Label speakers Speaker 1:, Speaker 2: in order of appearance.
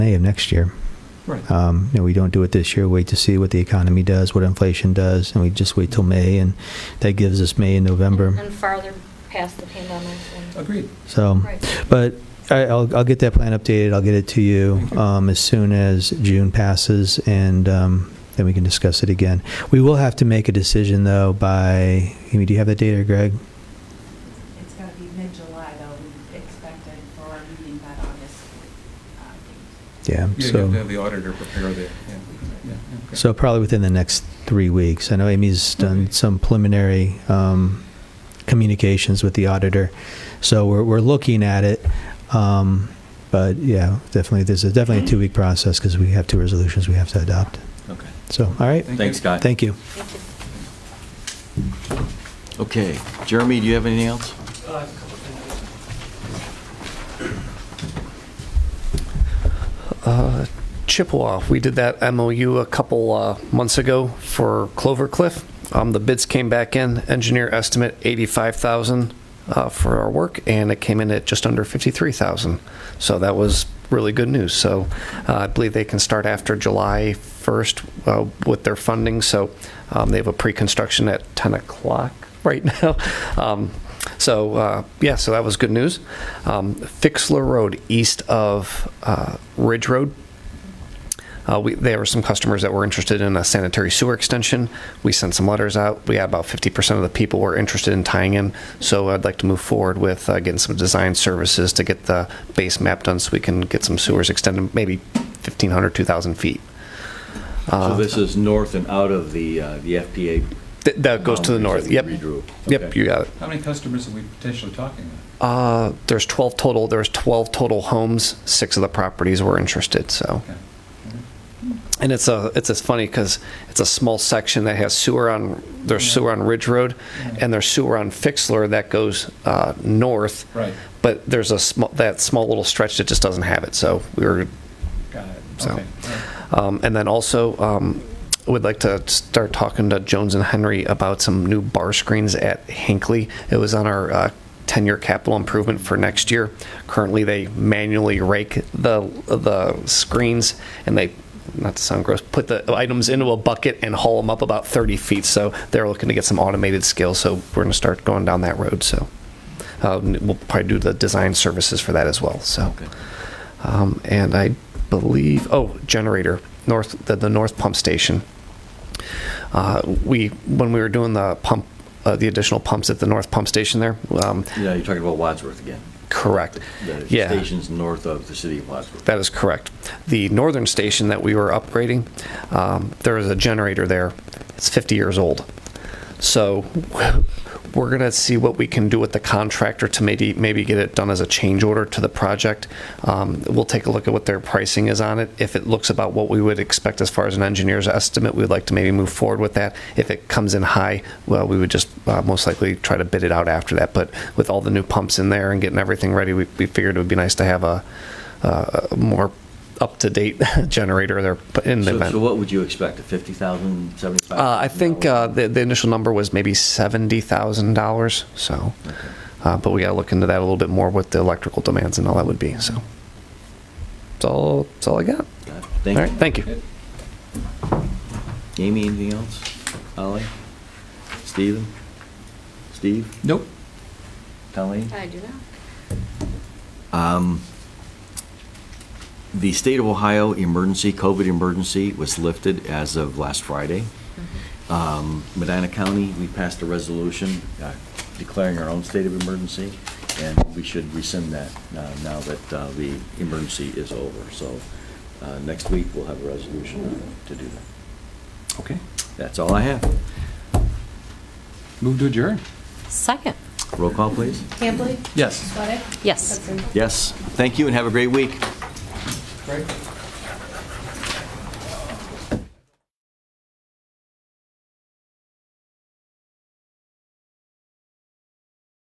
Speaker 1: May of next year.
Speaker 2: Right.
Speaker 1: Um, you know, we don't do it this year. Wait to see what the economy does, what inflation does, and we just wait till May, and that gives us May and November.
Speaker 3: And farther past the pandemic. and-
Speaker 2: Agreed.
Speaker 1: So,
Speaker 3: Right.
Speaker 1: but I, I'll, I'll get that plan updated. I'll get it to you
Speaker 2: Thank you.
Speaker 1: um, as soon as June passes, and um, then we can discuss it again. We will have to make a decision though by. Amy, do you have that data, Greg?
Speaker 4: It's gotta be mid-July, though, we expected for our meeting that August. uh, date.
Speaker 1: Yeah.
Speaker 2: Yeah, You
Speaker 1: so.
Speaker 2: have to have the auditor prepare the, yeah. yeah, okay.
Speaker 1: So probably within the next three weeks. I know Amy's done
Speaker 2: Okay.
Speaker 1: some preliminary um, communications with the auditor, so we're, we're looking at it. Um, But yeah, definitely, there's a- definitely a two-week process because we have two resolutions we have to adopt.
Speaker 5: Okay.
Speaker 1: So, all right,
Speaker 2: Thank you.
Speaker 5: Thanks, Scott.
Speaker 1: thank you.
Speaker 3: Thank you.
Speaker 5: Okay. Jeremy, do you have anything else?
Speaker 6: Uh, Chippewa, we did that MOU a couple uh, months ago for Clover Cliff. Um, The bids came back in, engineer estimate 85,000 uh, for our work, and it came in at just under 53,000. So that was really good news. So uh, I believe they can start after July 1st uh, with their funding, so um, they have a pre-construction at 10 o'clock right now. Um, so uh, yeah, so that was good news. Um, Fixler Road, east of uh, Ridge Road. Uh, we, there were some customers that were interested in a sanitary sewer extension. We sent some letters out. We had about 50% of the people were interested in tying in. So I'd like to move forward with uh, getting some design services to get the base map done so we can get some sewers extended, maybe 1,500, 2,000 feet.
Speaker 5: So this is north and out of the, uh, the FPA.
Speaker 6: Th- that goes to the north. Yep.
Speaker 5: Redrew.
Speaker 6: Yep,
Speaker 5: Okay.
Speaker 6: you got it.
Speaker 2: How many customers are we potentially talking about?
Speaker 6: Uh, there's 12 total. There's 12 total homes. Six of the properties were interested. So,
Speaker 2: Okay.
Speaker 6: and it's a it's it's funny because it's a small section that has sewer on there's
Speaker 2: Yeah.
Speaker 6: sewer on Ridge Road,
Speaker 2: Yeah.
Speaker 6: and there's sewer on Fixler that goes uh, north.
Speaker 2: Right.
Speaker 6: But there's a small that small little stretch that just doesn't have it. So we were
Speaker 2: Got it.
Speaker 6: So-
Speaker 2: Okay. All right.
Speaker 6: um, And then also, um, would like to start talking to Jones and Henry about some new bar screens at Hinckley. It was on our uh, 10-year capital improvement for next year. Currently, they manually rake the, the screens, and they, not to sound gross, put the items into a bucket and haul them up about 30 feet. So they're looking to get some automated skills, so we're going to start going down that road, so. uh, We'll probably do the design services for that as well, so.
Speaker 5: Okay.
Speaker 6: Um, and I believe, oh, generator, north, the, the north pump station. Uh, we, when we were doing the pump, uh, the additional pumps at the north pump station there, um,
Speaker 5: Yeah, you're talking about Wadsworth again.
Speaker 6: correct.
Speaker 5: The
Speaker 6: Yeah.
Speaker 5: station's north of the city of Wadsworth.
Speaker 6: That is correct. The northern station that we were upgrading, um, there is a generator there. It's 50 years old. So we're going to see what we can do with the contractor to maybe maybe get it done as a change order to the project. Um, we'll take a look at what their pricing is on it. If it looks about what we would expect as far as an engineer's estimate, we'd like to maybe move forward with that. If it comes in high, well, we would just uh, most likely try to bid it out after that. But with all the new pumps in there and getting everything ready, we, we figured it would be nice to have a uh, more up-to-date generator there in the
Speaker 5: So,
Speaker 6: event.
Speaker 5: so what would you expect, a 50,000, 75,000?
Speaker 6: Uh, I think uh, the, the initial number was maybe $70,000, so, uh, but we gotta look into that a little bit more with the electrical demands and all that would be, so. That's all, that's all I got. All
Speaker 5: Thank
Speaker 6: right,
Speaker 5: you.
Speaker 6: thank you.
Speaker 2: Good.
Speaker 5: Amy, anything else? Ollie? Steven? Steve?
Speaker 2: Nope.
Speaker 5: Colleen?
Speaker 3: I do not.
Speaker 5: Um, The state of Ohio emergency, COVID emergency, was lifted as of last Friday. Um, Medina County, we passed a resolution uh, declaring our own state of emergency, and we should rescind that uh, now that uh, the emergency is over. So uh, next week, we'll have a resolution on it to do that. Okay. That's all I have.
Speaker 2: Move to adjourn.
Speaker 7: Second.
Speaker 5: Roll call, please.
Speaker 4: Hambley?
Speaker 2: Yes.
Speaker 4: Sweattick?
Speaker 7: Yes.
Speaker 4: Hudson?
Speaker 5: Yes, thank you and have a great week.
Speaker 2: Right.